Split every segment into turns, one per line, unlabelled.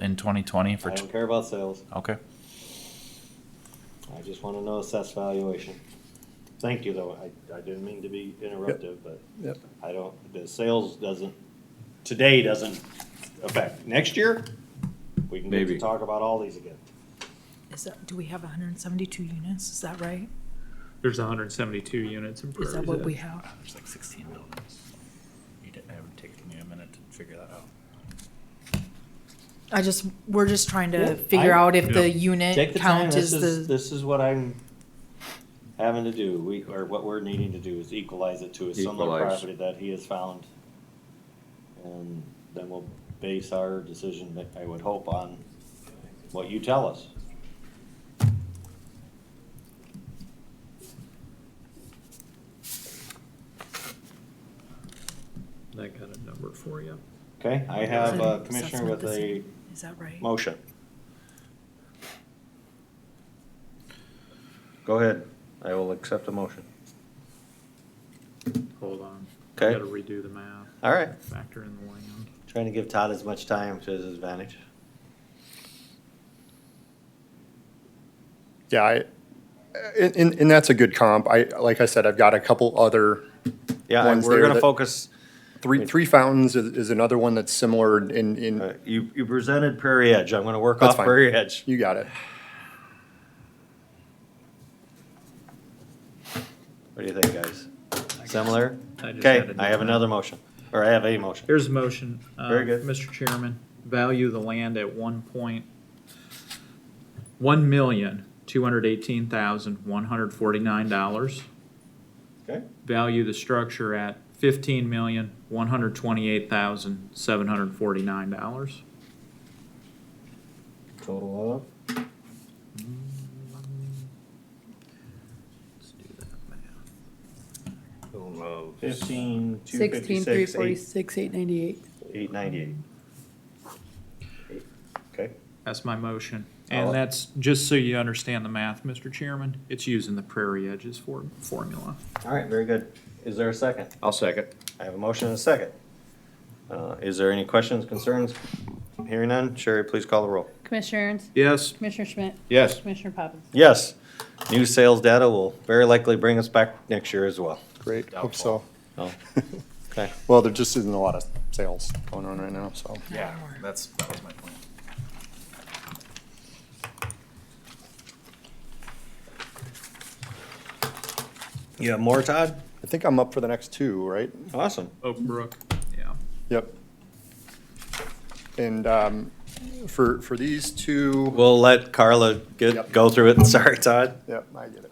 in twenty twenty
I
for,
don't
tw-
care about sales.
okay.
I just want to know assessed valuation. Thank you, though. I, I didn't mean to be interruptive, but
Yep.
I don't, the sales doesn't, today doesn't affect. Next year, we can get to
Maybe.
talk about all these again.
Is that, do we have hundred and seventy-two units? Is that right?
There's hundred and seventy-two units in Prairie.
Is that what
Head.
we have?
There's like sixteen buildings. You didn't, it would take me a minute to figure that out.
I just, we're just trying
Yeah,
to figure
I-
out if the
Yeah.
Take
unit
the time.
count
This
is
is,
the,
this is what I'm having to do. We, or what we're needing to do is equalize it to a similar
Equalize.
property that he has found. And then we'll base our decision, that I would hope, on what you tell us.
I got a number for you.
Okay, I have a
Assessment
commissioner with a
decision. is that right?
motion. Go ahead. I will accept the motion.
Hold on.
Okay.
Got to redo the math.
All right.
Factor in the land.
Trying to give Todd as much time to his advantage.
Yeah, I, and, and- and that's a good comp. I, like I said, I've got a couple other,
Yeah, and
One's
we're
there
gonna
that-
focus,
Three, Three Fountains is, is another one that's similar in,
uh,
in,
you, you presented Prairie Edge. I'm gonna work
That's
off
fine.
Prairie Edge.
you got it.
What do you think, guys? Similar?
I just
Okay,
added
I have
that.
another motion, or I have a motion.
Here's a motion. uh,
Very good.
Mr. Chairman, value the land at one point, one million, two hundred eighteen thousand, one hundred forty-nine dollars.
Okay.
Value the structure at fifteen million, one hundred twenty-eight thousand, seven hundred forty-nine dollars.
Total of?
Let's do that math.
Fifteen, two
Sixteen, three forty-six, eight ninety-eight.
eight ninety-eight. Okay.
That's my motion.
I'll-
And that's, just so you understand the math, Mr. Chairman, it's using the Prairie Edges for, formula.
All right, very good. Is there a second?
I'll second.
I have a motion and a second. Uh, Is there any questions, concerns? Hearing none, Sherry, please call the roll.
Commissioner Ernst?
Yes,
Commissioner Schmidt?
Yes.
Commissioner Poppins?
Yes, new sales data will very likely bring us back next year as well.
Great, hope so.
Oh, Okay,
Well, there just isn't a lot of sales going on right now, so.
Yeah, that's, that was my point.
you have more, Todd?
I think I'm up for the next two, right?
Awesome.
Oak Brook, yeah.
Yep. And, um, for, for these two,
We'll let Carla get,
Yep.
go through it. Sorry, Todd.
yep, I get it.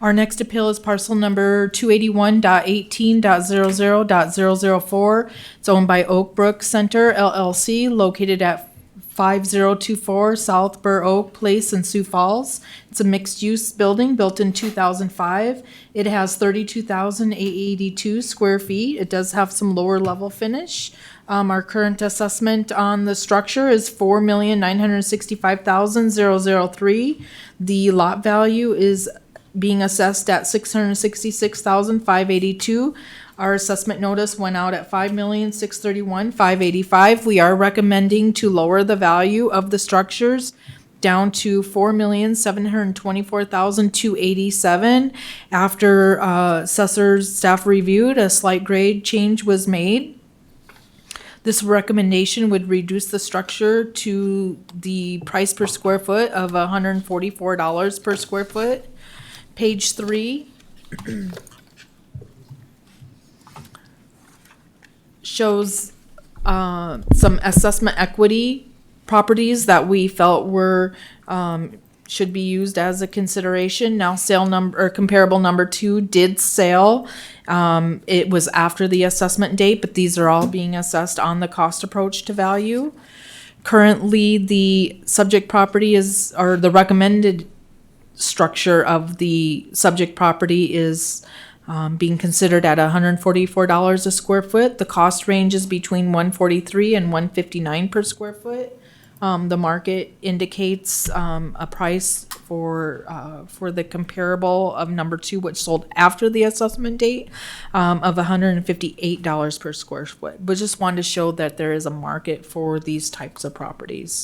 Our next appeal is parcel number two eighty-one dot eighteen dot zero zero dot zero zero four. It's owned by Oak Brook Center LLC located at five zero two four South Burr Oak Place in Sioux Falls. It's a mixed-use building built in two thousand five. It has thirty-two thousand eight eighty-two square feet. It does have some lower-level finish. Um, our current assessment on the structure is four million nine hundred sixty-five thousand zero zero three. The lot value is being assessed at six hundred sixty-six thousand five eighty-two. Our assessment notice went out at five million six thirty-one five eighty-five. We are recommending to lower the value of the structures down to four million seven hundred twenty-four thousand two eighty-seven. After uh, assessor's staff reviewed, a slight grade change was made. This recommendation would reduce the structure to the price per square foot of hundred and forty-four dollars per square foot. Page three. Shows, uh, some assessment equity properties that we felt were, um, should be used as a consideration. Now sale number, or comparable number two did sale. Um, it was after the assessment date, but these are all being assessed on the cost approach to value. Currently, the subject property is, or the recommended structure of the subject property is um, being considered at $144 a square foot. The cost range is between 143 and 159 per square foot. Um, the market indicates um, a price for, uh, for the comparable of number two, which sold after the assessment date, um, of hundred and fifty-eight dollars per square foot. But just wanted to show that there is a market for these types of properties.